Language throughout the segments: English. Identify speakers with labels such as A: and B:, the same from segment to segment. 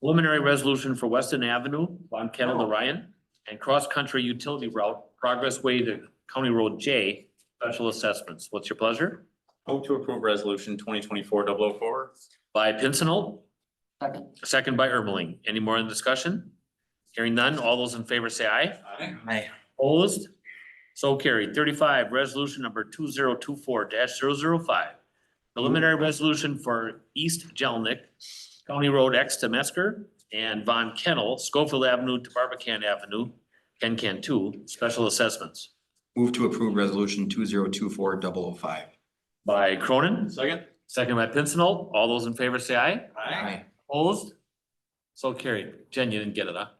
A: preliminary resolution for Weston Avenue, Von Kettle to Ryan, and cross-country utility route, Progress Way to County Road J, special assessments. What's your pleasure?
B: Move to approve resolution twenty twenty-four double oh four.
A: By Pincinel,
C: Second.
A: second by Ermeling. Any more in discussion? Hearing none, all those in favor say aye.
C: Aye.
A: Opposed? So carried. Thirty-five, resolution number two zero two four 5 Preliminary resolution for East Jelnik, County Road X to Metzger and Von Kennel, Schofield Avenue to Barbican Avenue, Ken Can two, special assessments.
D: Move to approve resolution two zero two four double oh five.
A: By Cronin,
B: Second.
A: second by Pincinel. All those in favor say aye.
D: Aye.
A: Opposed? So carried. Jen, you didn't get it, huh?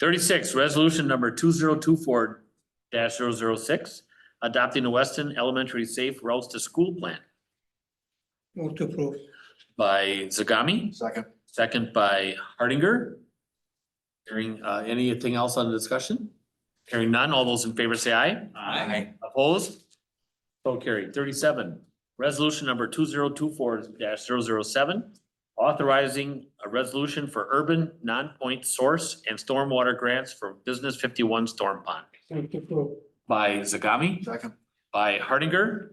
A: Thirty-six, resolution number two zero two four 6 adopting the Weston Elementary Safe Routes to School Plan
E: Move to approve.
A: by Zagami,
D: Second.
A: second by Hardinger. Hearing, uh, anything else on the discussion? Hearing none, all those in favor say aye.
D: Aye.
A: Opposed? So carried. Thirty-seven, resolution number two zero two four 7 authorizing a resolution for urban non-point source and stormwater grants for Business Fifty-One Storm Pond
E: Move to approve.
A: by Zagami,
D: Second.
A: by Hardinger.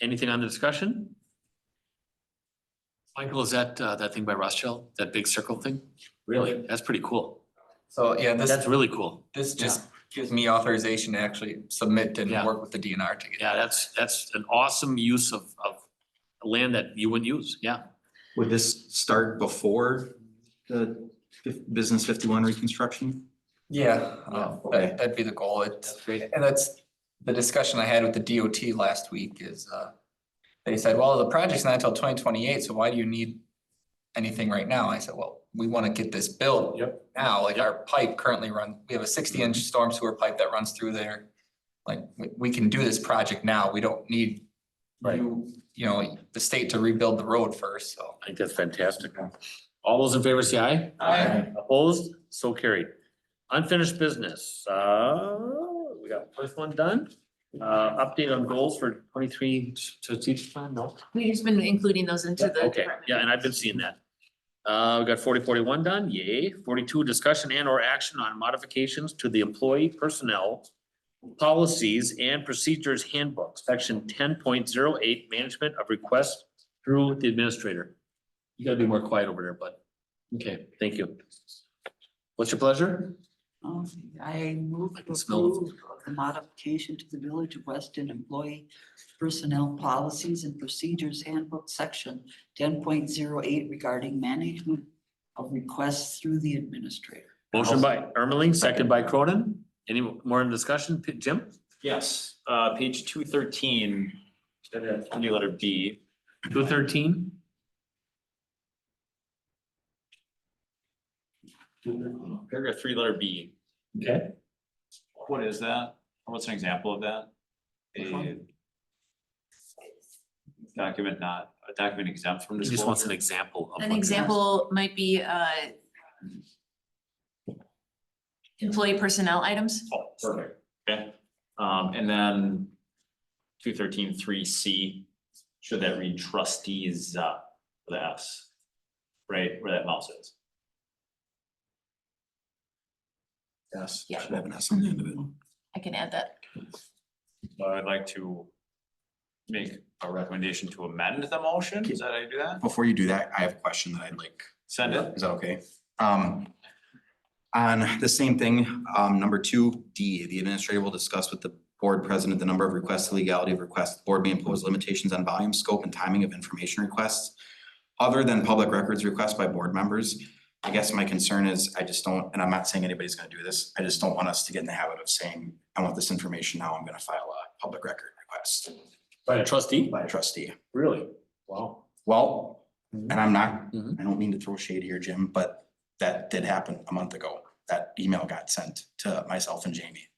A: Anything on the discussion? Michael, is that, uh, that thing by Rothschild, that big circle thing? Really? That's pretty cool.
F: So, yeah,
A: That's
F: this,
A: really cool.
F: this just gives me authorization to actually submit and
A: Yeah.
F: work with the DNR to get.
A: Yeah, that's, that's an awesome use of, of land that you wouldn't use. Yeah.
D: Would this start before the fif- business fifty-one reconstruction?
F: Yeah, um,
D: okay.
F: that, that'd be the goal. It's,
A: Great.
F: and that's the discussion I had with the DOT last week is, uh, they said, well, the project's not until twenty twenty-eight, so why do you need anything right now? I said, well, we want to get this built
A: Yep. Mm-hmm.
F: now, like our pipe currently run, we have a sixty-inch storm sewer pipe that runs through there. Like, we, we can do this project now. We don't need
A: Right.
F: you, you know, the state to rebuild the road first, so.
A: I think that's fantastic. All those in favor say aye.
F: Aye.
A: Opposed? So carried. Unfinished business. Uh, we got first one done. Uh, update on goals for twenty-three strategic plan? No.
G: We've just been including those into the.
A: Okay,
G: department
A: yeah, and I've been seeing that. Uh, we got forty forty-one done, yay. Forty-two, discussion and or action on modifications to the employee personnel policies and procedures handbook, section ten point zero eight, management of requests through the administrator. You gotta be more quiet over there, bud. okay, thank you. What's your pleasure?
H: Um, I move
A: I
H: to
A: can smell it.
H: approve of the modification to the Village of Weston Employee Personnel Policies and Procedures Handbook, section ten point zero eight regarding management of requests through the administrator.
A: Motion by Ermeling, second by Cronin. Any more in discussion? P- Jim?
B: Yes, uh, page two thirteen, new letter B.
A: Two thirteen?
B: Paragraph three, letter B.
A: Okay.
B: What is that? Or What's an example of that? A document not, a document exempt from
A: He just wants an
B: disclosure.
A: example. of
G: An
A: what-
G: example might be uh. Employee personnel items.
B: Oh, perfect. Okay, um, and then two thirteen, three C, should that read trustees, uh, with the S? Right, where that mouse is.
D: Yes.
G: Yeah.
D: Should have an S on the end of it.
G: I can add that.
B: So I'd like to make a recommendation to amend the motion. Is that how you do that?
D: Before you do that, I have a question that I'd like
B: Send it.
D: Is that okay? Um, on the same thing, um, number two, D, the administrator will discuss with the board president the number of requests, the legality of requests. The Board may impose limitations on volume, scope, and timing of information requests other than public records requests by board members. I guess my concern is I just don't, and I'm not saying anybody's gonna do this, I just don't want us to get in the habit of saying, I want this information now, I'm gonna file a public record request
A: By a trustee?
D: by a trustee.
A: Really? Wow.
D: Well, and I'm not,
A: Mhm.
D: I don't mean to throw shade here, Jim, but that did happen a month ago. That email got sent to myself and Jamie.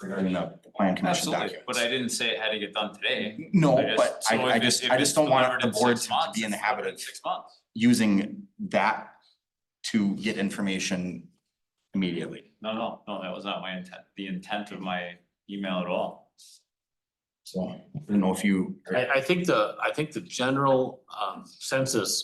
D: Regarding the plan commission
B: Absolutely, but I
D: documents.
B: didn't say it had to get done today.
D: No,
B: I just-
D: but
B: so
D: I, I
B: if it-
D: just,
B: if
D: I
B: it's
D: just don't want
B: delivered
D: the
B: in
D: board
B: six
D: to
B: months,
D: be in the
B: it's delivered
D: habit
B: in
D: of
B: Six months.
D: using that to get information immediately.
B: No, no, no, that was not my intent, the intent of my email at all.
D: So I don't know if you.
A: I, I think the, I think the general, um, census